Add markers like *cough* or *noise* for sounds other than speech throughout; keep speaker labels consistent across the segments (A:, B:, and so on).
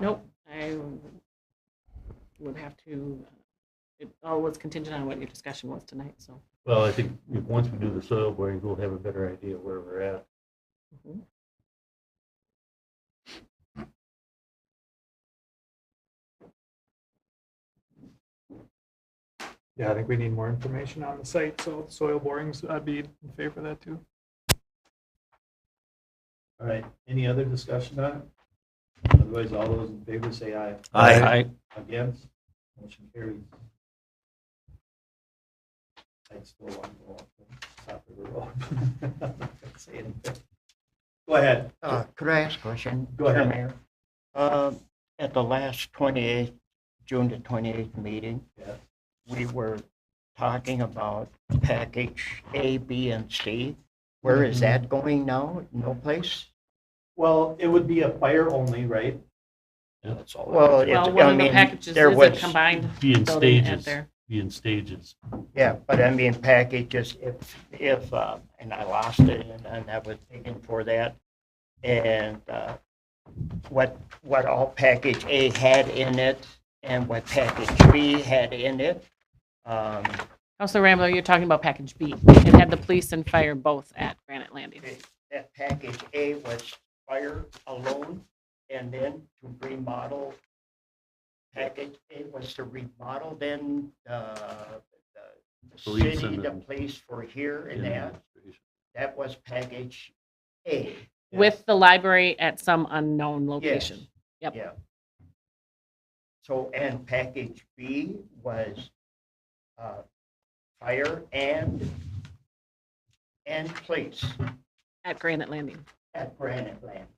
A: Nope, I would have to, it all was contingent on what your discussion was tonight, so.
B: Well, I think if- once we do the soil borings, we'll have a better idea where we're at.
A: mhm.
C: Yeah, I think we need more information on the site, so soil borings, I'd be in favor of that too.
D: All right, any other discussion on it? Otherwise, all those in favor say aye.
E: Aye.
D: Against, motion carries. I'd still want to go off the top of the road. *laughs* I'm not gonna Say anything. Go ahead.
E: Uh, Could I ask a question?
D: Go ahead.
E: Mr. Mayor? Uh, At the last 28th, June the 28th meeting,
D: Yeah.
E: we were talking about package A, B, and C. Where is that going now? No place?
D: Well, it would be a fire only, right?
E: That's all. Well, it-
A: Well, one
E: I
A: of the
E: mean,
A: packages
E: there
A: is a
E: was,
A: combined
B: Be in
A: building at
B: stages,
A: there.
B: be in stages.
E: yeah, but I mean, packages, if, if, uh, and I lost it, and- and I was thinking for that. And uh, what, what all package A had in it and what package B had in it. Um,
A: Counselor Rambo, you're talking about package B. It had the police and fire both at Granite Landing.
E: that package A was fire alone, and then to remodel. Package A was to remodel then, uh, the
B: Police
E: city,
B: and
E: the
B: then-
E: police for here and
B: in
E: that,
B: administration.
E: that was package A.
A: With the library at some unknown
E: Yes.
A: location. Yep.
E: Yeah. So, and package B was, uh, fire and, and police
A: At Granite Landing
E: at Granite Land,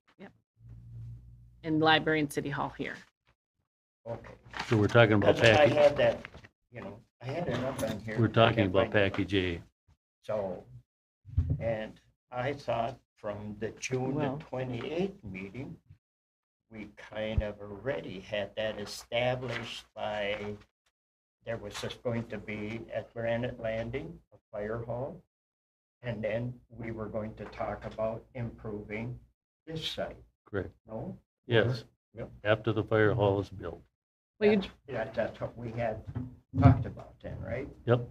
A: and library and city hall here.
E: okay.
B: So we're talking about
E: That's what I
B: package,
E: had that, you know, I had it up on here.
B: we're talking about
E: that.
B: package A.
E: So, and I thought from the June the
A: Well-
E: twenty-eighth meeting, we kind of already had that established by, there was just going to be at Granite Landing, a fire hall. And then we were going to talk about improving this site,
B: Correct.
E: no?
B: Yes.
E: Yep.
B: After the fire hall is built.
A: Well, you,
E: That's- Yeah, that's what we had talked about then, right?
B: Yep.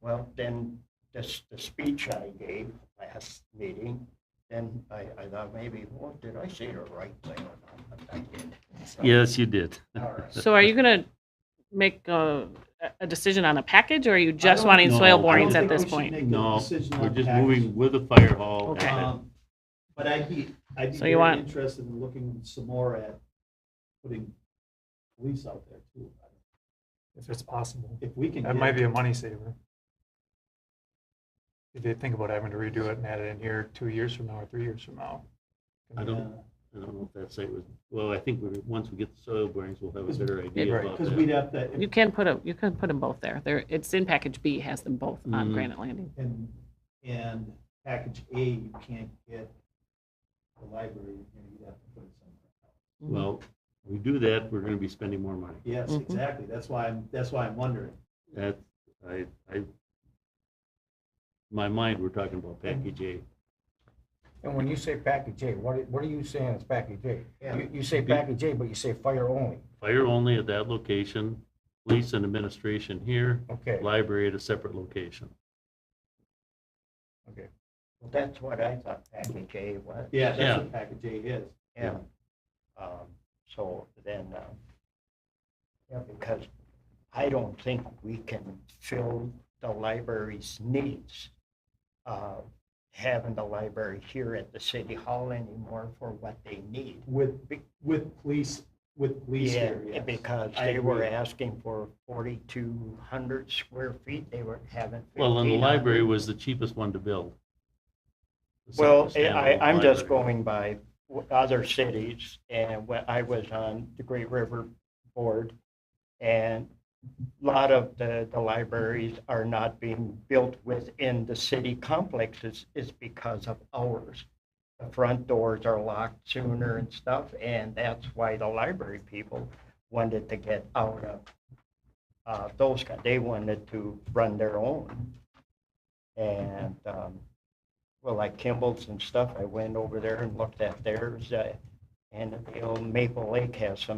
E: Well, then, this, the speech I gave last meeting, then I, I thought maybe, well, did I say the right thing or not? But I did. So,
B: Yes, you did.
E: all right.
A: so are you going to make a, a decision on a package or are you just wanting
B: know.
A: soil
B: I
A: borings
B: don't
A: at this point?
B: No,
D: Decision on
B: we're just
D: package.
B: moving with the fire hall.
A: Okay.
D: Um, But I'd be, I'd be
A: So
D: very
A: you want-
D: interested in looking some more at putting police out there too.
C: If it's possible.
D: If we can.
C: That might
D: get-
C: be a money saver. If you think about having to redo it and add it in here two years from now or three years from now.
B: I don't,
D: Yeah.
B: I don't know if that's it was, well, I think we, once we get the soil borings, we'll have a better idea
C: Right,
B: about
D: Because we'd have
B: that.
D: to,
A: You
D: if-
A: can put a, you can put them both there. There, it's in package B, has them both on
B: Mhm.
A: Granite Landing.
D: and, and package A, you can't get the library, you know, you'd have to put it somewhere. else.
A: Mm-hmm.
B: Well, we do that, we're gonna be spending more money.
D: Yes,
A: Mhm.
D: exactly, that's why I'm, that's why I'm wondering.
B: That, I, I, in my mind, we're talking about package A.
F: And when you say package A, what, what are you saying is package A?
E: Yeah.
F: You, you say package A, but you say fire only,
B: Fire only at that location, police and administration here,
F: okay.
B: library at a separate location.
E: Well, That's what I thought package A was.
D: Yeah, that's
B: Yeah.
D: what package A is.
E: Yeah. Um, So then, uh, yeah, because I don't think we can fill the library's needs. uh, Having the library here at the city hall anymore for what they need.
D: With, with police, with police
E: Yeah,
D: here, yes.
E: because
D: I
E: they were
D: agree.
E: asking for forty-two hundred square feet, they were having.
B: Well, and the
E: 1,500.
B: library was the cheapest one to build. The
E: Well, eh,
B: separate
E: I,
B: standalone
E: I'm just
B: library.
E: going by what other cities and when I was on the Great River Board. And a lot of the, the libraries are not being built within the city complexes is because of ours. The front doors are locked sooner and stuff, and that's why the library people wanted to get out of uh, those, kind- they wanted to run their own. And, um, well, like Kimball's and stuff, I went over there and looked at theirs. uh, And the old Maple Lake has some